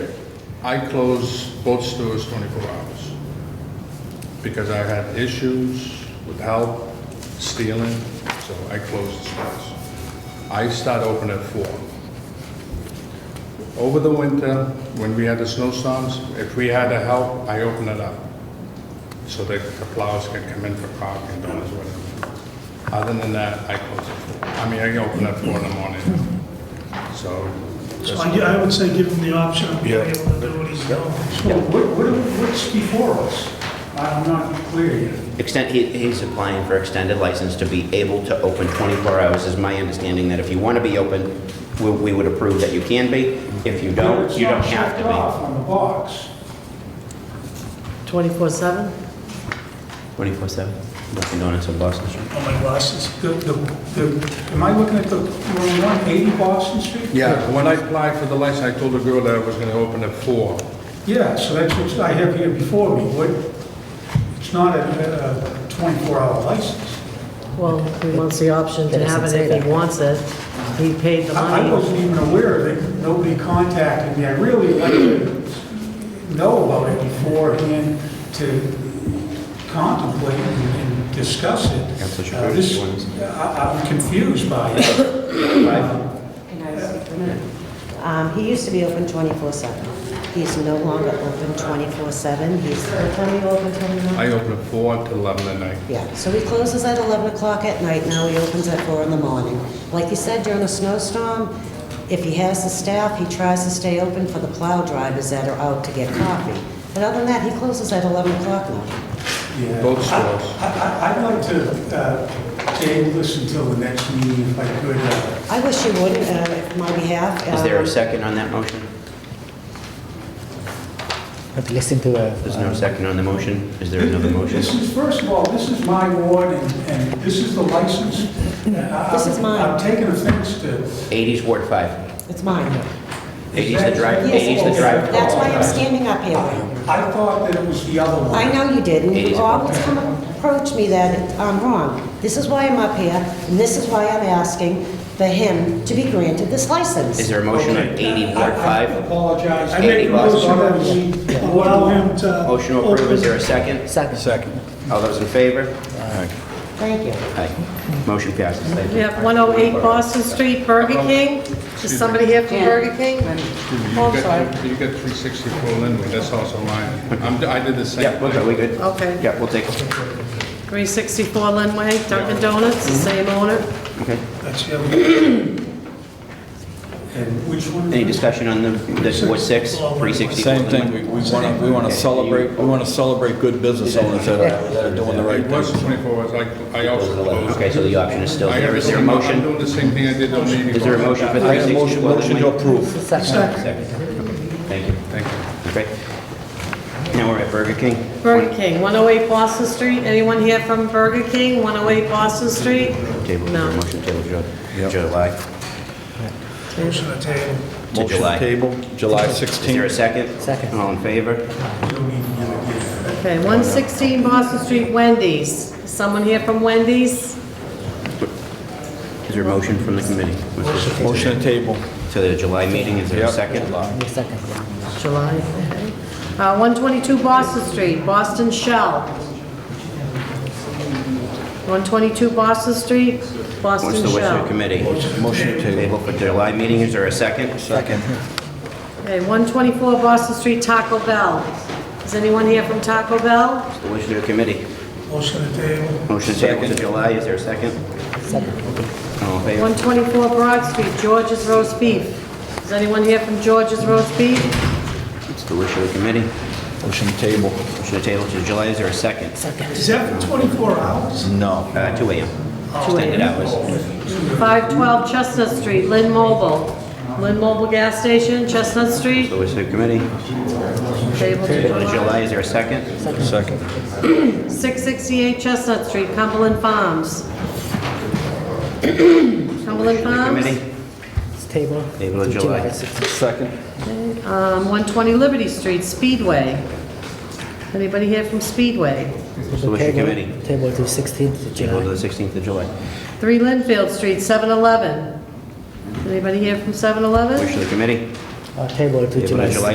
I close both stores 24 hours because I had issues with help, stealing, so I closed the stores. I start open at 4. Over the winter, when we had the snowstorms, if we had the help, I open it up so that the plows can come in for coffee and donuts, whatever. Other than that, I close at 4. I mean, I open at 4 in the morning, so. So I I would say give him the option of being Yeah. able to do what he's doing. So what, what- what's before us? I'm not clear yet. Extend, he, he's applying for extended license to be able to open 24 hours, is my understanding that if you want to be open, we, we would approve that you can be. If you don't, It's you not don't have checked off to on the box. 24/7? be. 24/7, Dunkin' Donuts on Boston Street. Oh, my glasses. The, the, the, am I looking at the wrong one, 80 Boston Street? Yeah, when I applied for the license, I told the girl that I was gonna open at four. Yeah, so that's what I have here before me. What, it's not a a 24-hour license. Well, he wants the option It to doesn't have it say if that. he wants it. He paid the I I money. wasn't even aware of it, nobody contacted me. I really like to know about it beforehand to contemplate and discuss it. Councilor Chakoudas, Uh, this- you want I- I'm confused by it. Can I speak for a minute? Um, He used to be open 24/7. He's no longer open 24/7. He's, what time are you open till now? I open at four until eleven at night. Yeah, so he closes at 11 o'clock at night, now he opens at four in the morning. Like you said, during a snowstorm, if he has the staff, he tries to stay open for the plow drivers that are out to get coffee. But other than that, he closes at 11 o'clock now. Yeah. Both stores. I- I- I'd like to uh, table this until the next meeting if I could. I Uh, wish you would, uh, on my behalf. Is there um, a second on that motion? But listen to the. There's no second on the motion? Is there another motion? This is, first of all, this is my ward and and this is the license. Uh, This is mine. I'm taking offense to 80's Ward 5. It's mine. 80's the drive, Yes, 80's it the is. drive. That's why I'm standing up here. I thought that it was the other one. I know you didn't. It You is. always come approach me that I'm wrong. This is why I'm up here, and this is why I'm asking for him to be granted this Is license. there a motion on Okay. 80 Uh, I- Ward 5? I apologize. I make a Boston. motion that we allow him to. Motion to approve, is there a second? Second. All those in favor? Thank you. Aye. Motion passes, thank We you. have 108 Boston Street, Burger King. Is somebody here from Burger King? Oh. Excuse me, you Oh, I'm got- sorry. You got three sixty-four Linwood, that's also mine. I'm, I did the same. Yep, we're good, we good. Okay. Yeah, we'll take it. 364 Linway, Dunkin' Donuts, the Mm-hmm. same owner. That's the other one. And which one? Any discussion on the, the Ward 6, 360? Same thing, we want to, we want to celebrate, we want to celebrate good business owners that are, that are doing the right It thing. was twenty-four hours, I, I also closed. Okay, so the option is still I there. have Is the there a same- I'm motion? doing the same thing I did on eighty-one. Is there a motion for I have a 360 motion, motion to Linwood? approve. Second. Thank you. Thank you. Okay. Now we're at Burger King. Burger King, 108 Boston Street. Anyone here from Burger King, 108 Boston Street? Table, is there a No. motion table, Ju- July, Motion to table. to Motion July. table, July Is there a 16th. second? Second. All in favor? Okay, 116 Boston Street, Wendy's. Someone here from Wendy's? Is there a motion from the committee? Motion to table. To the July meeting, is there a Yep. second? Second. July. okay. Uh, 122 Boston Street, Boston Shell. 122 Boston Street, What's Boston the wish of the Shell. committee? Motion to table. for July meeting, is there a second? Second. Okay, 124 Boston Street, Taco Bell. Is anyone here from Taco Bell? The wish of the committee. Motion to table. Motion to table to July, is there a second? Second. All in favor? 124 Broad Street, George's Roast Beef. Is anyone here from George's Roast Beef? It's the wish of the committee. Motion to table. Motion to table to July, is there a second? Is that for 24 hours? No. Uh, 2 AM. Extended hours. 512 Chestnut Street, Lynn Mobile. Lynn Mobile Gas Station, Chestnut Street. The wish of the committee. Table to Table to July. July, is there a second? Second. 668 Chestnut Street, Cumberland Farms. Cumberland Wish of the Farms, committee. It's table. Table of to July. 16th. Second. um, 120 Liberty Street, Speedway. Anybody here from Speedway? So what's your Table- committee? Table to 16th to Table to July. the 16th of July. 3 Linfield Street, 7-Eleven. Anybody here from 7-Eleven? Wish of the committee. Uh, Table to Table to July July,